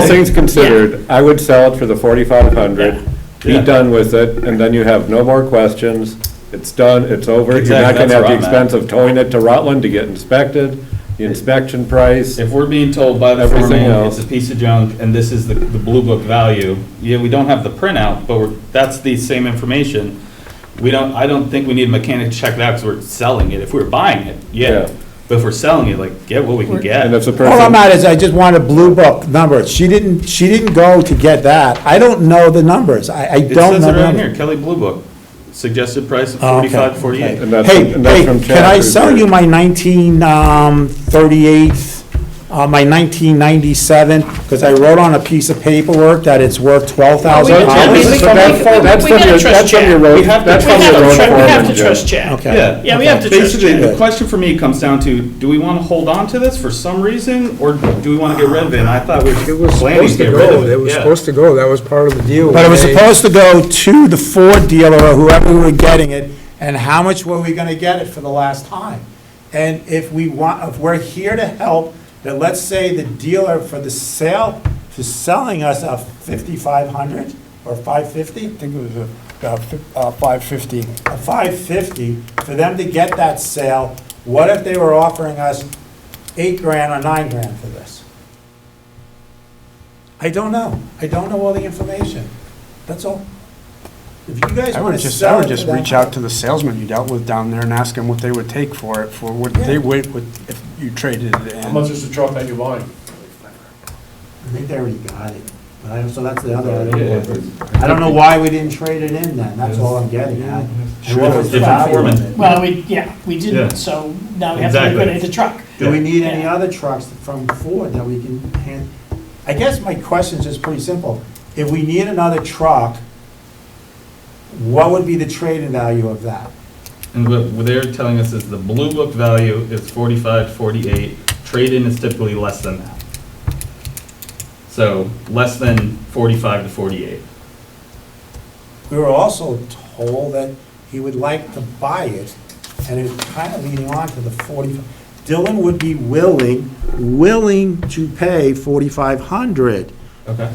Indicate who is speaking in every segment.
Speaker 1: All things considered, I would sell it for the forty-five hundred, be
Speaker 2: Yeah.
Speaker 1: done with it, and then you have no more questions. It's done, it's over. You're not gonna
Speaker 2: Exactly, that's
Speaker 1: have the
Speaker 2: where I'm at.
Speaker 1: expense of towing it to Rutland to get inspected, the inspection price.
Speaker 2: If we're being told by the
Speaker 1: Everything
Speaker 2: foreman,
Speaker 1: else.
Speaker 2: it's a piece of junk, and this is the, the blue book value, yeah, we don't have the printout, but we're, that's the same information. We don't, I don't think we need a mechanic to check that, because we're selling it, if we're buying it,
Speaker 1: Yeah.
Speaker 2: yeah, but if we're selling it, like, get what we can
Speaker 1: And if
Speaker 2: get.
Speaker 1: the
Speaker 3: All I'm
Speaker 1: person,
Speaker 3: at is I just want a blue book number. She didn't, she didn't go to get that. I don't know the numbers. I, I
Speaker 2: It
Speaker 3: don't
Speaker 2: says
Speaker 3: know.
Speaker 2: it
Speaker 3: the
Speaker 2: right
Speaker 3: numbers.
Speaker 2: here, Kelly Blue Book, suggested price of
Speaker 3: Oh, okay,
Speaker 2: forty-five,
Speaker 3: okay.
Speaker 2: forty-eight.
Speaker 1: And that's-
Speaker 3: Hey,
Speaker 1: and that's
Speaker 3: hey,
Speaker 1: from
Speaker 3: can I
Speaker 1: Chapter's
Speaker 3: sell you
Speaker 1: version.
Speaker 3: my nineteen, um, thirty-eight, uh, my nineteen ninety-seven? Because I wrote on a piece of paperwork that it's worth twelve thousand
Speaker 1: Well,
Speaker 3: dollars.
Speaker 1: we-
Speaker 4: That's from
Speaker 1: that's from your,
Speaker 4: your-
Speaker 1: that's from your road,
Speaker 2: We have to-
Speaker 1: that's
Speaker 4: We
Speaker 1: from your
Speaker 4: have
Speaker 1: road
Speaker 4: to, tru- we have
Speaker 1: foreman,
Speaker 4: to trust
Speaker 1: Jim.
Speaker 4: Chad.
Speaker 3: Okay.
Speaker 2: Yeah.
Speaker 4: Yeah, we have to trust
Speaker 2: Basically,
Speaker 4: Chad.
Speaker 2: the question for me comes down to, do we want to hold on to this for some reason, or do we want to get rid of it? And I thought we
Speaker 5: It
Speaker 2: were
Speaker 5: was
Speaker 2: planning
Speaker 5: supposed
Speaker 2: to
Speaker 5: to
Speaker 2: get rid of
Speaker 5: go,
Speaker 2: it.
Speaker 5: it was
Speaker 2: yeah.
Speaker 5: supposed to go, that was part of the deal.
Speaker 3: But it was
Speaker 5: They-
Speaker 3: supposed to go to the Ford dealer or whoever we were getting it, and how much were we gonna get it for the last time? And if we want, if we're here to help, then let's say the dealer for the sale, for selling us a fifty-five hundred or five fifty? I think it was a, uh, five fifty. A five fifty, for them to get that sale, what if they were offering us eight grand or nine grand for this? I don't know. I don't know all the information. That's all. If you guys
Speaker 6: I
Speaker 3: want
Speaker 6: would
Speaker 3: to
Speaker 6: just, I
Speaker 3: sell it to
Speaker 6: would just
Speaker 3: them-
Speaker 6: reach out to the salesman you dealt with down there and ask them what they would take for it, for what
Speaker 3: Yeah.
Speaker 6: they would, would- if you traded it in.
Speaker 7: How much is the truck that you're buying?
Speaker 3: I think they already got it. But I, so that's the other, I don't know. I don't know why we didn't trade it in then. That's all I'm getting at. And what was the
Speaker 2: Different
Speaker 3: value
Speaker 2: foreman.
Speaker 3: of it?
Speaker 4: Well, we, yeah, we
Speaker 2: Yeah.
Speaker 4: didn't, so now we have to
Speaker 2: Exactly.
Speaker 4: liquidate the truck.
Speaker 3: Do we need any
Speaker 4: Yeah.
Speaker 3: other trucks from Ford that we can hand? I guess my question's just pretty simple. If we need another truck, what would be the trade-in value of that?
Speaker 2: And what what they're telling us is the blue book value is forty-five, forty-eight, trade-in is typically less than that. So less than forty-five to forty-eight.
Speaker 3: We were also told that he would like to buy it, and it's kind of leading on to the forty. Dylan would be willing, willing to pay forty-five hundred.
Speaker 2: Okay.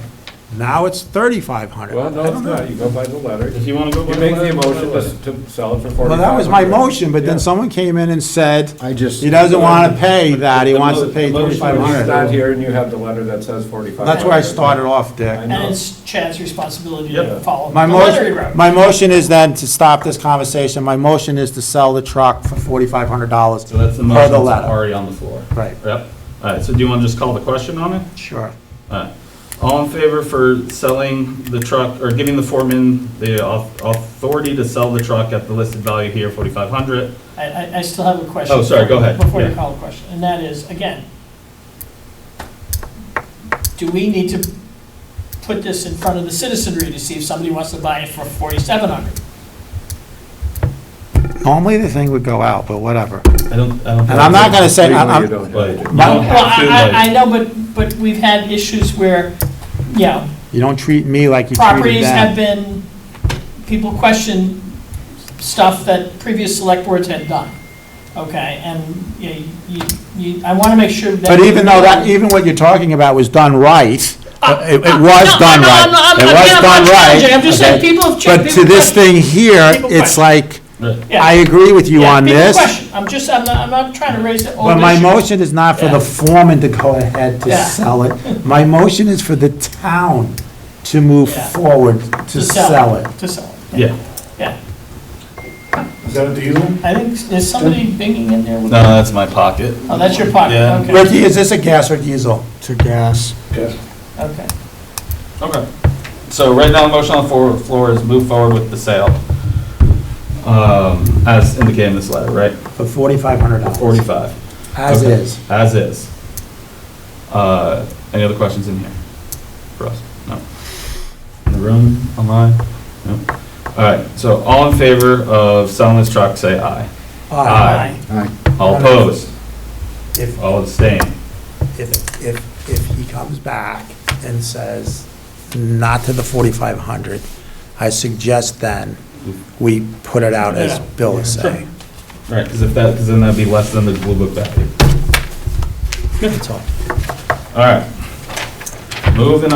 Speaker 3: Now it's thirty-five hundred.
Speaker 1: Well, no, it's not, you go by the letter.
Speaker 2: If you want to go. by
Speaker 1: You make
Speaker 2: letter,
Speaker 1: the
Speaker 2: go by
Speaker 1: motion
Speaker 2: letter.
Speaker 1: to to sell it for forty-five hundred.
Speaker 3: Well, that was my motion, but then someone came in and said,
Speaker 6: I just.
Speaker 3: he doesn't want to pay that, he wants to pay
Speaker 2: The motion was
Speaker 3: thirty-five
Speaker 1: He's not
Speaker 3: hundred.
Speaker 1: here and you have the letter that says forty-five.
Speaker 3: That's where I started off, Dick.
Speaker 1: I know.
Speaker 4: And it's Chad's responsibility to
Speaker 2: Yep.
Speaker 4: follow the
Speaker 3: My
Speaker 4: letter he
Speaker 3: motion,
Speaker 4: wrote.
Speaker 3: my motion is then to stop this conversation, my motion is to sell the truck for forty-five hundred dollars.
Speaker 2: So that's the motion
Speaker 3: letter.
Speaker 2: that's already on the floor.
Speaker 3: Right.
Speaker 2: Yep. All right, so do you want to just call the question on it?
Speaker 3: Sure.
Speaker 2: All right. All in favor for selling the truck, or giving the foreman the au- authority to sell the truck at the listed value here, 4,500?
Speaker 4: I, I, I still have a question.
Speaker 2: Oh, sorry, go ahead.
Speaker 4: Before you
Speaker 2: Yeah.
Speaker 4: call the question, and that is, again, do we need to put this in front of the citizenry to see if somebody wants to buy it for forty-seven hundred?
Speaker 3: Normally, the thing would go out, but whatever.
Speaker 2: I don't, I don't.
Speaker 3: And I'm not gonna say, I'm,
Speaker 1: Legally, you don't have
Speaker 2: But you
Speaker 3: I'm-
Speaker 1: to.
Speaker 2: don't
Speaker 3: My-
Speaker 4: Well,
Speaker 2: have to,
Speaker 4: I, I,
Speaker 2: like-
Speaker 4: I know, but, but we've had issues where, you know,
Speaker 3: you don't treat me like you treated
Speaker 4: properties have
Speaker 3: them.
Speaker 4: been, people question stuff that previous select boards had done, okay? And, you know, you, you, I want to make sure that.
Speaker 3: But even though that, even what you're talking about was done right, it it was
Speaker 4: Uh, no,
Speaker 3: done
Speaker 4: no,
Speaker 3: right.
Speaker 4: I'm not-
Speaker 3: It
Speaker 4: I'm-
Speaker 3: was
Speaker 4: I'm not
Speaker 3: done right.
Speaker 4: challenging. I'm just saying
Speaker 3: okay?
Speaker 4: people have checked-
Speaker 3: But to
Speaker 4: people
Speaker 3: this
Speaker 4: have-
Speaker 3: thing here,
Speaker 4: people
Speaker 3: it's
Speaker 4: question.
Speaker 3: like,
Speaker 4: Yeah.
Speaker 3: I agree with you
Speaker 4: Yeah,
Speaker 3: on
Speaker 4: people
Speaker 3: this.
Speaker 4: question. I'm just, I'm not, I'm not trying to raise the old
Speaker 3: But my
Speaker 4: issue.
Speaker 3: motion is not for the
Speaker 4: Yeah.
Speaker 3: foreman to go ahead to
Speaker 4: Yeah.
Speaker 3: sell it. My motion is for the town to move
Speaker 4: Yeah.
Speaker 3: forward to sell it.
Speaker 4: To sell it.
Speaker 2: Yeah.
Speaker 4: Yeah,
Speaker 7: Is that a diesel?
Speaker 4: I think, there's somebody binging in there with,
Speaker 2: No, that's my pocket.
Speaker 4: oh, that's your pocket,
Speaker 2: Yeah.
Speaker 4: okay,
Speaker 3: Ricky, is this a gas or diesel?
Speaker 6: To gas.
Speaker 4: okay.
Speaker 2: Okay. So right now, the motion on the floor- floor is move forward with the sale, um, as indicated in this letter, right?
Speaker 3: For forty-five hundred dollars.
Speaker 2: 45.
Speaker 3: As
Speaker 2: Okay.
Speaker 3: is.
Speaker 2: As is. Uh, Any other questions in here for us? No? In the room, online? No? All right, so all in favor of selling this truck, say aye. Aye. All opposed?
Speaker 3: If,
Speaker 2: All abstained?
Speaker 3: if, if, if he comes back and says not to the forty-five hundred, I suggest then we put it out as
Speaker 4: Yeah.
Speaker 3: Bill is saying.
Speaker 2: Right, because if that, because then that'd be less than the blue book value.
Speaker 3: That's all.
Speaker 2: All right. Moving